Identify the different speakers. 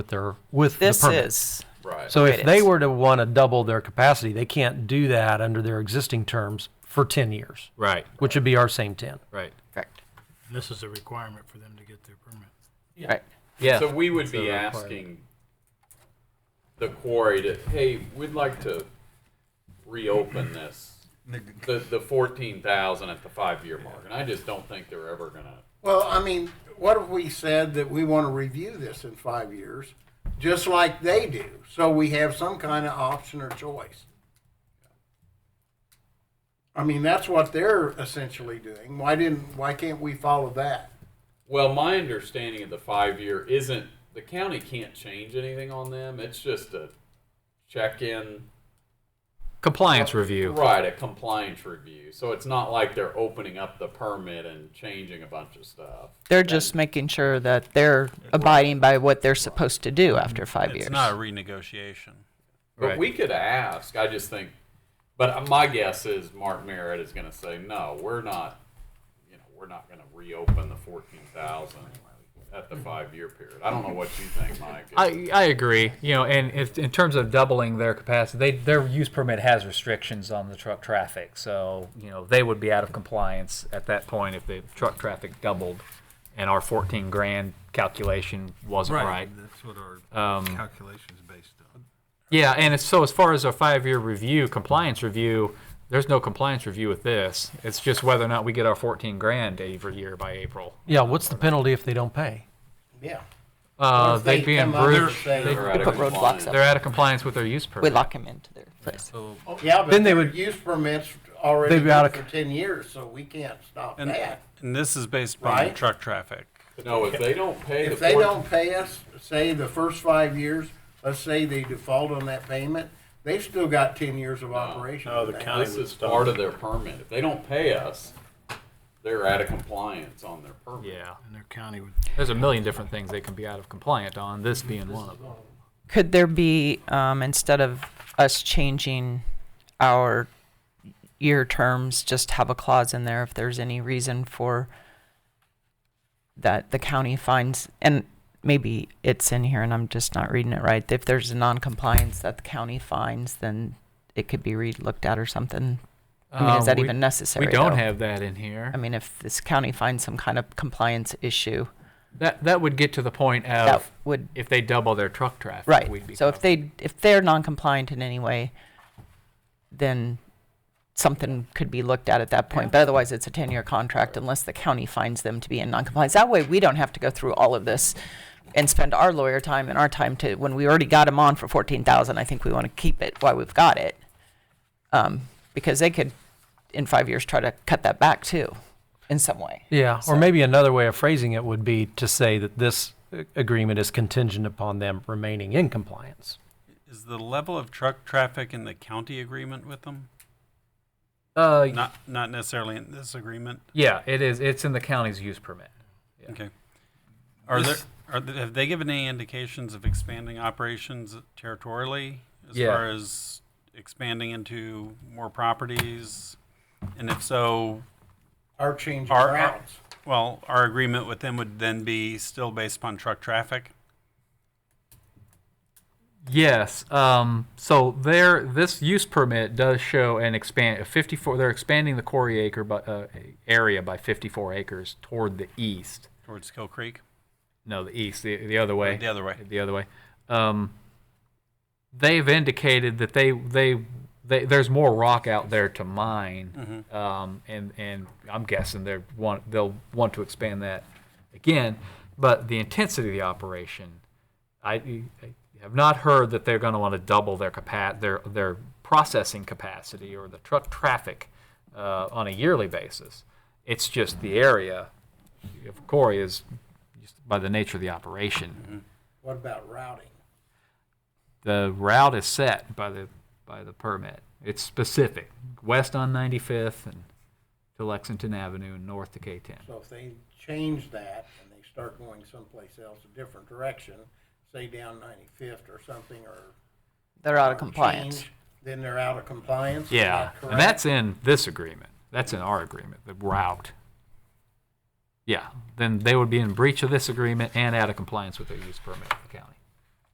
Speaker 1: with their, with the
Speaker 2: This
Speaker 1: permit.
Speaker 2: is,
Speaker 3: Right.
Speaker 1: So if
Speaker 2: it
Speaker 1: they
Speaker 2: is.
Speaker 1: were to want to double their capacity, they can't do that under their existing terms for 10 years,
Speaker 4: Right,
Speaker 1: which would be our same 10.
Speaker 4: right.
Speaker 2: correct,
Speaker 5: This is a requirement for them to get their permit.
Speaker 2: right.
Speaker 4: Yeah.
Speaker 3: So we would be
Speaker 4: requirement.
Speaker 3: asking the quarry to, hey, we'd like to reopen this, the, the fourteen thousand at the five-year mark, and I just don't think they're ever gonna,
Speaker 6: Well, I mean, what if we said that we want to review this in five years, just like they do? So we have some kind of option or choice. I mean, that's what they're essentially doing. Why didn't, why can't we follow that?
Speaker 3: well, my understanding of the five-year isn't, the county can't change anything on them, it's just a check-in.
Speaker 4: Compliance review.
Speaker 3: Right, a compliance review, so it's not like they're opening up the permit and changing a bunch of stuff.
Speaker 2: They're just making sure that they're abiding by what they're supposed to do after five years.
Speaker 7: Mm, It's not a renegotiation.
Speaker 3: But
Speaker 4: Right.
Speaker 3: we could ask. I just think, but my guess is Mark Merritt is going to say, no, we're not. You know, we're not going to reopen the fourteen thousand at the five-year period. I don't know what you think, Mike.
Speaker 4: I, I agree. You know, and if, in terms of doubling their capacity, they, their use permit has restrictions on the truck traffic. So you know they would be out of compliance at that point if the truck traffic doubled, and our 14 grand calculation wasn't right.
Speaker 5: That's what our
Speaker 4: Um,
Speaker 5: calculation is based on.
Speaker 4: Yeah, and it's, so as far as a five-year review, compliance review, there's no compliance review with this. It's just whether or not we get our 14 grand every year by April.
Speaker 1: Yeah, what's the penalty if they don't pay?
Speaker 6: Yeah.
Speaker 4: Uh,
Speaker 6: Or if they
Speaker 4: they'd be in
Speaker 6: come up and
Speaker 4: breach.
Speaker 6: say-
Speaker 4: They,
Speaker 3: They're out of
Speaker 2: put roadblocks
Speaker 3: compliance.
Speaker 2: up.
Speaker 4: they're out of compliance with their use permit.
Speaker 2: We lock them into their place.
Speaker 7: So,
Speaker 6: Yeah, but
Speaker 1: Then they
Speaker 6: their
Speaker 1: would-
Speaker 6: use permits already
Speaker 1: They'd be out
Speaker 6: good
Speaker 1: of-
Speaker 6: for ten years, so we can't stop
Speaker 7: and,
Speaker 6: that.
Speaker 7: and this is based upon
Speaker 6: Right.
Speaker 7: truck traffic.
Speaker 3: no, if they don't pay the
Speaker 6: If they
Speaker 3: 14
Speaker 6: don't pay us, say the first five years, let's say they default on that payment, they've still got ten years of operation.
Speaker 8: No, the
Speaker 6: on that.
Speaker 8: county
Speaker 3: this
Speaker 8: would
Speaker 3: is
Speaker 8: stop.
Speaker 3: part of their permit. If they don't pay us, they're out of compliance on their permit.
Speaker 4: Yeah,
Speaker 5: And their county would
Speaker 4: there's a million different things they can be out of compliant on. This being one of them.
Speaker 2: Could there be, um, instead of us changing our year terms, just have a clause in there if there's any reason for that the county finds, and maybe it's in here and I'm just not reading it right. If there's a non-compliance that the county finds, then it could be re-looked at or something. I mean, is
Speaker 4: Uh,
Speaker 2: that
Speaker 4: we-
Speaker 2: even necessary?
Speaker 4: We don't
Speaker 2: though?
Speaker 4: have that in here.
Speaker 2: I mean, if this county finds some kind of compliance issue,
Speaker 4: That that would get to the point of
Speaker 2: that would,
Speaker 4: if they double their truck traffic.
Speaker 2: right.
Speaker 4: We'd be
Speaker 2: So if
Speaker 4: covered.
Speaker 2: they, if they're non-compliant in any way, then something could be looked at at that point. But otherwise, it's a 10-year contract unless the county finds them to be in non-compliance. That way, we don't have to go through all of this and spend our lawyer time and our time to, when we already got them on for 14,000, I think we want to keep it while we've got it. Um, Because they could, in five years, try to cut that back too, in some way.
Speaker 1: Yeah,
Speaker 2: So-
Speaker 1: or maybe another way of phrasing it would be to say that this uh, agreement is contingent upon them remaining in compliance.
Speaker 7: Is the level of truck traffic in the county agreement with them?
Speaker 4: uh,
Speaker 7: Not not necessarily in this agreement.
Speaker 4: yeah, it is. It's in the county's use permit. Yeah.
Speaker 7: Okay. Are there
Speaker 4: This-
Speaker 7: are there, have they given any indications of expanding operations territorially as
Speaker 4: Yeah.
Speaker 7: far as expanding into more properties? And if so,
Speaker 6: Our change of
Speaker 7: Our- our-
Speaker 6: routes.
Speaker 7: well, our agreement with them would then be still based upon truck traffic.
Speaker 4: Yes. Um, so there, this use permit does show an expand a 54. They're expanding the quarry acre by, uh, area by 54 acres toward the east.
Speaker 7: towards Kill Creek.
Speaker 4: No, the east, the, the other way.
Speaker 7: The other way.
Speaker 4: The other way. Um, they've indicated that they, they, they, there's more rock out there to mine.
Speaker 7: Mm-hmm.
Speaker 4: Um, and, and I'm guessing they're want, they'll want to expand that again. But the intensity of the operation, I, I have not heard that they're going to want to double their capa- their, their processing capacity or the truck traffic uh, on a yearly basis. It's just the area of Corey is just by the nature of the operation.
Speaker 6: Mm-hmm. What about routing?
Speaker 4: The route is set by the by the permit. It's specific. West on 95th and to Lexington Avenue and north to K10.
Speaker 6: So if they change that and they start going someplace else, a different direction, say down ninety-fifth or something, or.
Speaker 2: They're out of
Speaker 6: or
Speaker 2: compliance.
Speaker 6: change, Then they're out of compliance? Is
Speaker 4: Yeah,
Speaker 6: that
Speaker 4: and
Speaker 6: correct?
Speaker 4: that's in this agreement. That's in our agreement. The route. Yeah, then they would be in breach of this agreement and out of compliance with their use permit with the county.